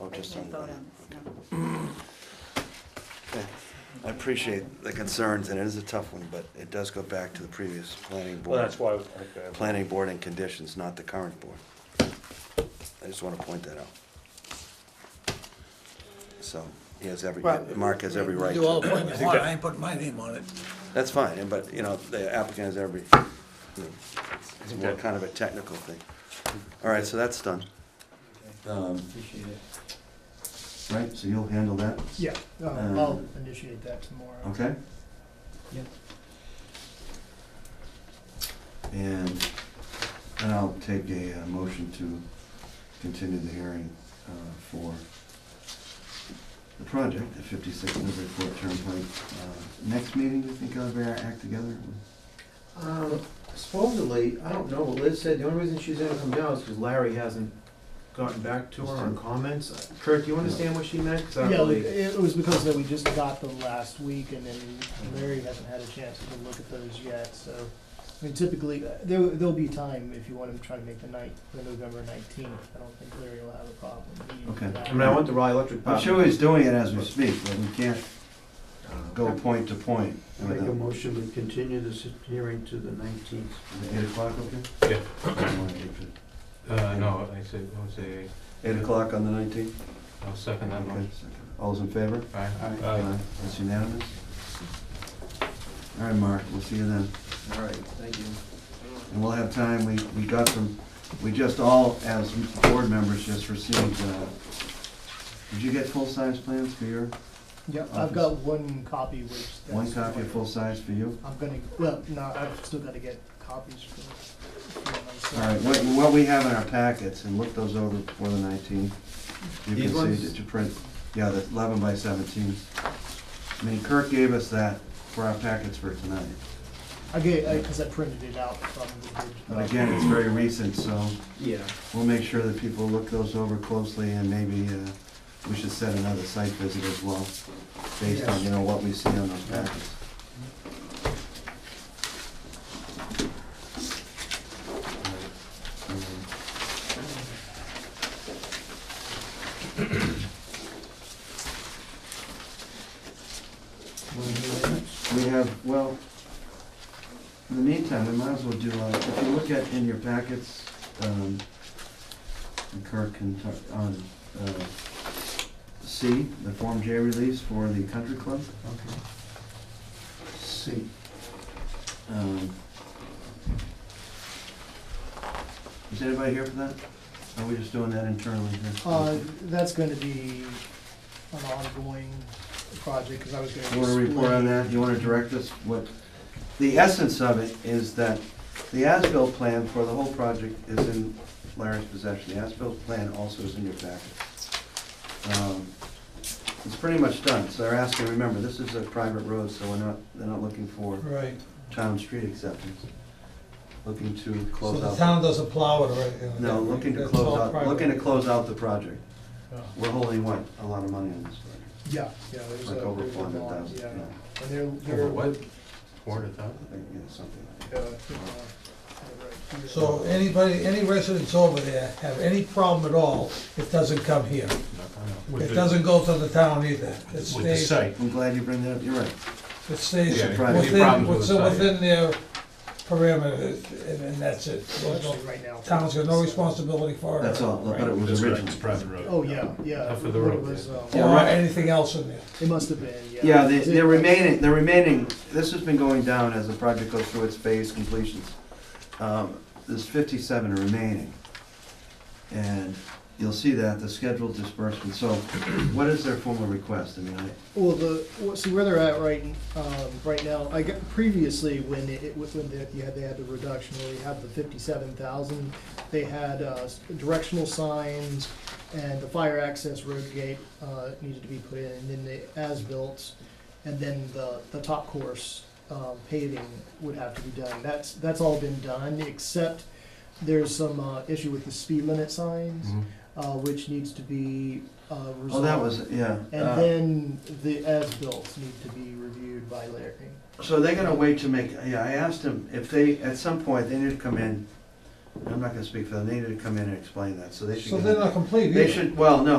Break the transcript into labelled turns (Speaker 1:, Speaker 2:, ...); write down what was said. Speaker 1: Oh,
Speaker 2: We
Speaker 1: just
Speaker 2: can't
Speaker 1: on
Speaker 2: vote
Speaker 1: the-
Speaker 2: on this, no.
Speaker 1: Okay. I appreciate the concerns, and it is a tough one, but it does go back to the previous planning board.
Speaker 3: Well, that's why I was like, uh,
Speaker 1: Planning board and conditions, not the current board. I just want to point that out. So, he has every,
Speaker 4: Well,
Speaker 1: Mark has every right.
Speaker 4: Do all
Speaker 1: to-
Speaker 4: the pointing
Speaker 3: I
Speaker 4: you
Speaker 3: think
Speaker 4: want,
Speaker 3: that-
Speaker 4: I ain't putting my name on it.
Speaker 1: That's fine, and but, you know, the applicant has every, you know, it's more
Speaker 3: that-
Speaker 1: kind of a technical thing. All right, so that's done. Um,
Speaker 5: Appreciate it.
Speaker 1: Right, so you'll handle that?
Speaker 5: Yeah, uh,
Speaker 1: Um,
Speaker 5: I'll initiate that tomorrow.
Speaker 1: Okay?
Speaker 5: Yeah.
Speaker 1: And then I'll take a uh, motion to continue the hearing uh, for the project at 56 Newburyport Turnpike. Uh, Next meeting, do you think I'll be able to act together?
Speaker 6: Um, supposedly, I don't know, what Liz said the only reason she's gonna come down is because Larry hasn't gotten back to her on comments. Kurt, do you understand what she meant? 'Cause I don't
Speaker 5: Yeah,
Speaker 6: really-
Speaker 5: it it was because that we just got them last week and then Larry hasn't had a chance to look at those yet, so. I mean, typically, uh, there, there'll be time if you want to try to make the night, the November nineteenth. I don't think Larry will have a problem. meeting
Speaker 1: Okay.
Speaker 5: for that.
Speaker 6: I mean, I went to Rye Electric.
Speaker 1: I'm
Speaker 6: Power.
Speaker 1: sure he's doing it as we speak, but we can't uh, go point to point.
Speaker 7: Make a
Speaker 1: without-
Speaker 7: motion to continue this hearing to the nineteenth.
Speaker 1: Eight o'clock, okay?
Speaker 3: Yeah.
Speaker 1: Yeah.
Speaker 3: Uh, no, I said, what was it,
Speaker 1: Eight o'clock on the nineteenth?
Speaker 3: I'll second that
Speaker 1: Okay.
Speaker 3: one.
Speaker 1: All's in favor?
Speaker 3: Aye.
Speaker 7: Aye.
Speaker 3: Aye.
Speaker 1: That's unanimous? All right, Mark, we'll see you then.
Speaker 6: All right, thank you.
Speaker 1: And we'll have time, we, we got from, we just all, as board members, just received, uh, did you get full-size plans for your,
Speaker 5: Yeah, I've got one copy which. that's-
Speaker 1: one copy of full-size for you?
Speaker 5: I'm gonna, well, no, I've still gotta get copies for. for
Speaker 1: All
Speaker 5: myself.
Speaker 1: right, what, what we have in our packets, and look those over before the nineteenth. You
Speaker 6: These
Speaker 1: can
Speaker 6: ones?
Speaker 1: see that you print, yeah, the eleven by seventeen. I mean, Kirk gave us that for our packets for tonight.
Speaker 5: I get, I, cause I printed it out from the.
Speaker 1: But again, it's very recent, so
Speaker 6: Yeah.
Speaker 1: we'll make sure that people look those over closely and maybe uh, we should set another site visit as well, based on, you know, what we see on those packets. We have, well, in the meantime, we might as well do, uh, if you look at in your packets, um, and Kirk can talk on, uh, C, the Form J release for the country club.
Speaker 7: Okay.
Speaker 1: C. Um, Is anybody here for that? Or Are we just doing that internally here?
Speaker 5: Uh, that's gonna be an ongoing project, cause I was gonna.
Speaker 1: You wanna report on that, you wanna direct us, what, the essence of it is that the as-built plan for the whole project is in Larry's possession, the as-built plan also is in your packet. Um, It's pretty much done, so they're asking, remember, this is a private road, so we're not, they're not looking for
Speaker 4: Right,
Speaker 1: town street acceptance. Looking to
Speaker 4: so
Speaker 1: close
Speaker 4: the
Speaker 1: out,
Speaker 4: town doesn't plow it, right? you know,
Speaker 1: no,
Speaker 4: that-
Speaker 1: looking to
Speaker 4: that's
Speaker 1: close
Speaker 4: all
Speaker 1: out,
Speaker 4: private.
Speaker 1: looking to close out the project.
Speaker 4: Yeah.
Speaker 1: We're holding what, a lot of money on this project,
Speaker 5: Yeah, yeah, there's a,
Speaker 1: like over
Speaker 5: there's a
Speaker 1: four hundred
Speaker 5: lot,
Speaker 1: thousand,
Speaker 5: yeah,
Speaker 1: yeah.
Speaker 5: and they're,
Speaker 3: Over
Speaker 5: they're.
Speaker 3: what? Four to thousand?
Speaker 1: I think, yeah, something like that.
Speaker 5: uh, uh, right here.
Speaker 4: So anybody, any residents over there have any problem at all, it doesn't come here. It doesn't go to the town either. It
Speaker 3: With the
Speaker 4: stays,
Speaker 3: site.
Speaker 1: I'm glad you bring that up, you're right.
Speaker 4: it stays
Speaker 3: Yeah,
Speaker 1: any
Speaker 4: within,
Speaker 3: problems with the site,
Speaker 4: within
Speaker 3: yeah.
Speaker 4: within their perimeter, and and that's it.
Speaker 5: Well,
Speaker 4: There's no-
Speaker 5: actually, right now.
Speaker 4: Town's got no responsibility for it.
Speaker 1: That's all, but it was
Speaker 3: That's correct,
Speaker 1: original.
Speaker 3: It's private road.
Speaker 5: Oh, yeah, yeah.
Speaker 3: Not for the
Speaker 5: what it
Speaker 3: road,
Speaker 5: was, um,
Speaker 1: Yeah,
Speaker 4: Or
Speaker 1: right.
Speaker 4: anything else in there.
Speaker 5: It must have been, yeah.
Speaker 1: Yeah, the, the remaining, the remaining, this has been going down as the project goes through its phase completions. Um, There's fifty-seven remaining. And you'll see that, the scheduled disbursement, so what is their formal request? I mean, I,
Speaker 5: Well, the, well, see where they're at right, um, right now, I got, previously, when it, when they, yeah, they had the reduction, where we had the fifty-seven thousand, they had, uh, s- directional signs, and the fire access road gate, uh, needed to be put in, and then the as-built, and then the, the top course, um, paving would have to be done, that's, that's all been done, except there's some, uh, issue with the speed limit signs,
Speaker 3: Mhm.
Speaker 5: uh, which needs to be, uh, resolved.
Speaker 1: Mm-hmm. oh, that was, yeah.
Speaker 5: And
Speaker 1: uh,
Speaker 5: then the as-built need to be reviewed by Larry.
Speaker 1: So they're gonna wait to make, yeah, I asked them if they, at some point, they need to come in, I'm not gonna speak for them, they need to come in and explain that, so they should.
Speaker 4: So
Speaker 1: get-
Speaker 4: they're not complete either.
Speaker 1: They should, well, no,